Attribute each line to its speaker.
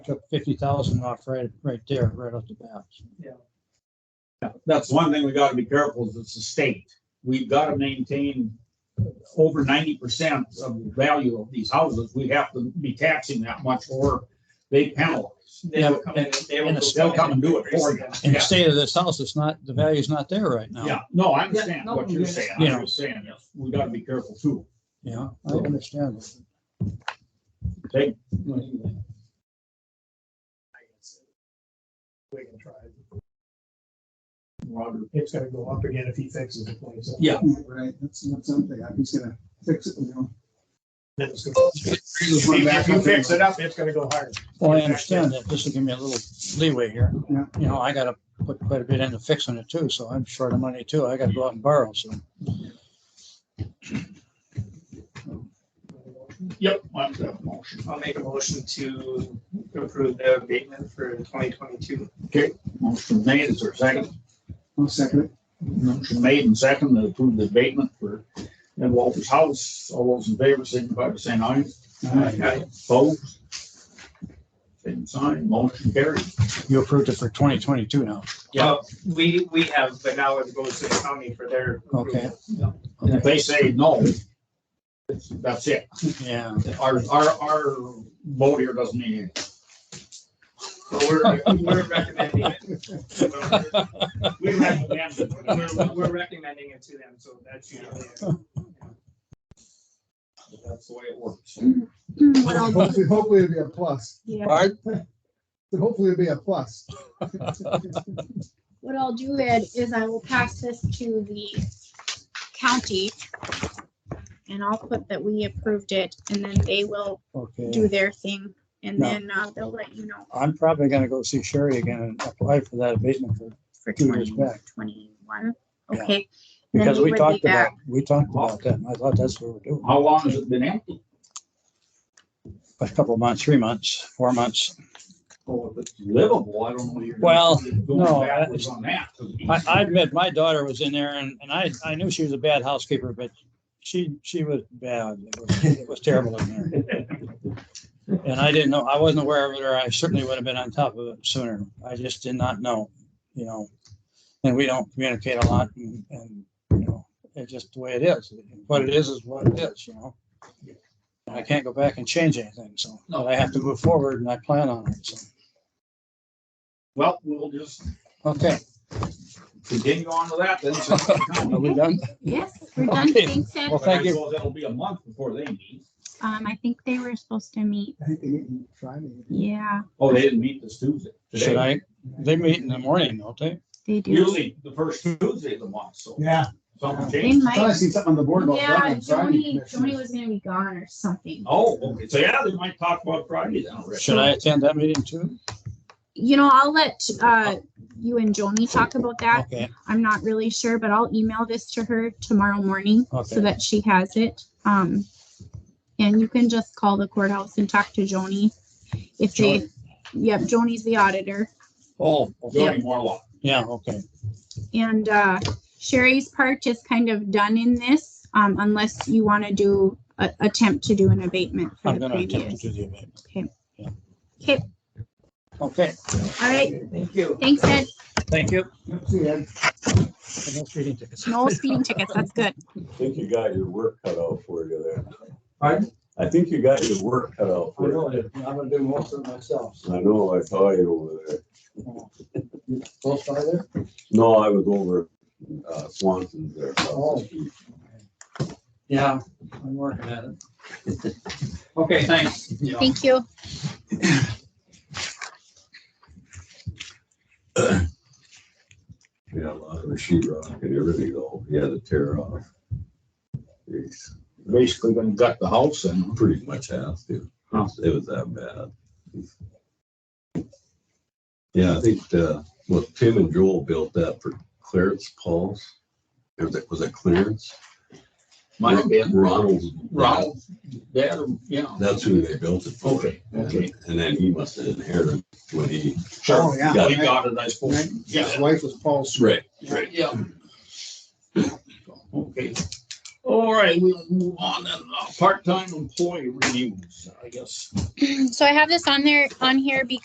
Speaker 1: took fifty thousand off right, right there, right off the bat.
Speaker 2: Yeah, That's one thing we gotta be careful is it's the state. We've gotta maintain over ninety percent of the value of these houses. We have to be taxing that much or they penalize.
Speaker 3: They will come in, they will.
Speaker 1: And it's-
Speaker 2: They'll come and do it for you.
Speaker 1: In the
Speaker 2: Yeah,
Speaker 1: state of this house, it's not, the value's not there right now.
Speaker 2: yeah. No, I understand
Speaker 3: Yeah, no,
Speaker 2: what
Speaker 3: we
Speaker 2: you're saying. I'm
Speaker 1: understand.
Speaker 2: just saying, is we gotta be careful too.
Speaker 1: Yeah, I understand.
Speaker 2: Take,
Speaker 4: We can try.
Speaker 2: Roger.
Speaker 4: It's gonna go up again if he fixes the place. up.
Speaker 2: Yeah.
Speaker 5: Right, that's not something, I'm just gonna fix it, you know.
Speaker 4: Then it's gonna- If you fix it up, it's gonna go higher.
Speaker 1: Well, I understand that. This will give me a little leeway here.
Speaker 5: Yeah.
Speaker 1: You know, I gotta put quite a bit into fixing it too, so I'm short of money too. I gotta go out and borrow, so.
Speaker 2: Yep. I'm gonna motion.
Speaker 3: I'll make a motion to approve the abatement for twenty twenty-two.
Speaker 2: Motion made, is there a second?
Speaker 5: I'll second it.
Speaker 2: Motion made and second to approve the abatement for Ed Walters House. All those in favor, signify by saying aye. Aye. Opposed? Same sign, motion carried.
Speaker 1: You approved it for twenty twenty-two now.
Speaker 2: Yeah.
Speaker 3: Well, We, we have, but now it goes to the county for their. approval.
Speaker 1: Okay.
Speaker 2: And if they say no, it's- that's it.
Speaker 1: Yeah.
Speaker 2: Our, our, our vote here doesn't mean anything.
Speaker 3: But we're, we're recommending it.
Speaker 2: We recommend it.
Speaker 3: We're, we're recommending it to them, so that's usually.
Speaker 2: That's the way it works.
Speaker 6: Hmm, What else?
Speaker 5: Hopefully, hopefully it'll be a plus,
Speaker 6: Yeah,
Speaker 1: Bart?
Speaker 5: hopefully it'll be a plus.
Speaker 6: what I'll do Ed, is I will pass this to the county. And I'll put that we approved it and then they will
Speaker 1: Okay.
Speaker 6: do their thing and
Speaker 1: No.
Speaker 6: then uh, they'll let you know
Speaker 1: I'm probably gonna go see Sherry again and apply for that abatement for-
Speaker 6: for
Speaker 1: Two years
Speaker 6: twenty
Speaker 1: back.
Speaker 6: twenty-one.
Speaker 1: Yeah.
Speaker 6: Okay, Then
Speaker 1: because
Speaker 6: we
Speaker 1: we
Speaker 6: would be
Speaker 1: talked about,
Speaker 6: back.
Speaker 1: we talked about that. and I thought that's what we're doing.
Speaker 2: How long has it been empty?
Speaker 1: A couple of months, three months, four months.
Speaker 2: Oh, if it's livable, I don't know. you're
Speaker 1: Well,
Speaker 2: going
Speaker 1: no,
Speaker 2: backwards On that. 'cause
Speaker 1: I, I admit, my daughter was in there and, and I, I knew she was a bad housekeeper, but she, she was bad. It was, it was terrible in there. And I didn't know, I wasn't aware of it, or I certainly would have been on top of it sooner. I just did not know, you know. And we don't communicate a lot and, and, you know, it's just the way it is. What it is is what it is, you know. And I can't go back and change anything, so, but I have to move forward and I plan on it, so,
Speaker 2: Well, we'll just
Speaker 1: okay.
Speaker 2: continue on to that then. since it's
Speaker 1: Are
Speaker 2: coming.
Speaker 1: we done?
Speaker 6: yes, we're done.
Speaker 1: Okay.
Speaker 6: Thanks Ed.
Speaker 1: Well, thank you.
Speaker 2: Well, That'll be a month before they meet.
Speaker 6: Um, I think they were supposed to meet,
Speaker 5: I think they meet in Friday.
Speaker 6: yeah,
Speaker 2: Oh, they didn't meet this Tuesday. Today.
Speaker 1: Should I, they meet in the morning, don't they?
Speaker 6: they do.
Speaker 2: Usually the first Tuesday of the month, so
Speaker 4: Yeah.
Speaker 2: something
Speaker 6: They
Speaker 2: changed.
Speaker 5: I thought I
Speaker 6: might,
Speaker 5: seen something on the board about.
Speaker 6: yeah,
Speaker 5: Friday, Friday
Speaker 6: Joni,
Speaker 5: commission.
Speaker 6: Joni was gonna be gone or something.
Speaker 2: Oh, okay, so yeah, they might talk about Friday then already.
Speaker 1: Should I attend that meeting too?
Speaker 6: You know, I'll let uh, you and Joni talk about that.
Speaker 1: Okay,
Speaker 6: I'm not really sure, but I'll email this to her tomorrow morning so
Speaker 1: okay,
Speaker 6: that she has it. Um, and you can just call the courthouse and talk to Joni if they, yep, Joni's the auditor.
Speaker 2: Oh.
Speaker 6: Yeah.
Speaker 2: Jody Morlock.
Speaker 1: yeah, okay.
Speaker 6: And, uh, Sherry's part is kind of done in this, um, unless you want to do, a- attempt to do an abatement for
Speaker 1: I'm
Speaker 6: the
Speaker 1: gonna attempt
Speaker 6: previous.
Speaker 1: to do the event.
Speaker 2: Okay.
Speaker 6: All right,
Speaker 3: Thank you.
Speaker 6: thanks, Ed.
Speaker 1: Thank you.
Speaker 5: See ya.
Speaker 1: No speeding tickets.
Speaker 6: No speeding tickets, that's good.
Speaker 7: I think you got your work cut out for you there.
Speaker 2: Pardon?
Speaker 7: I think you got your work cut out for you.
Speaker 1: I'm gonna do most of it myself.
Speaker 7: I know, I saw you over there.
Speaker 1: Close by there?
Speaker 7: No, I was over uh, Swanson's there.
Speaker 1: Oh.
Speaker 7: across the street.
Speaker 1: Yeah, I'm working at it.
Speaker 2: Okay, thanks.
Speaker 6: Thank you.
Speaker 7: We had a lot of the sheet rock and everything though. He had to tear off. He's
Speaker 2: Basically gonna gut the house and.
Speaker 7: pretty much has to.
Speaker 2: Huh.
Speaker 7: It was that bad. Yeah, I think, uh, well, Tim and Joel built that for Clarence Paul's. Was it, was it Clarence?
Speaker 2: Might have been
Speaker 7: Ronald's.
Speaker 2: Ronald, dad, or- yeah.
Speaker 7: That's who they built it for.
Speaker 2: Okay, okay.
Speaker 7: And then he must have inherited when he.
Speaker 5: Oh,
Speaker 2: Sure.
Speaker 5: yeah.
Speaker 2: We got it, I suppose.
Speaker 5: Right.
Speaker 2: Yeah.
Speaker 5: His wife was Paul's.
Speaker 7: Right.
Speaker 2: Yeah. Okay. All right, we'll move on then. Uh, Part-time employee reviews, I guess.
Speaker 6: So I have this on there, on here because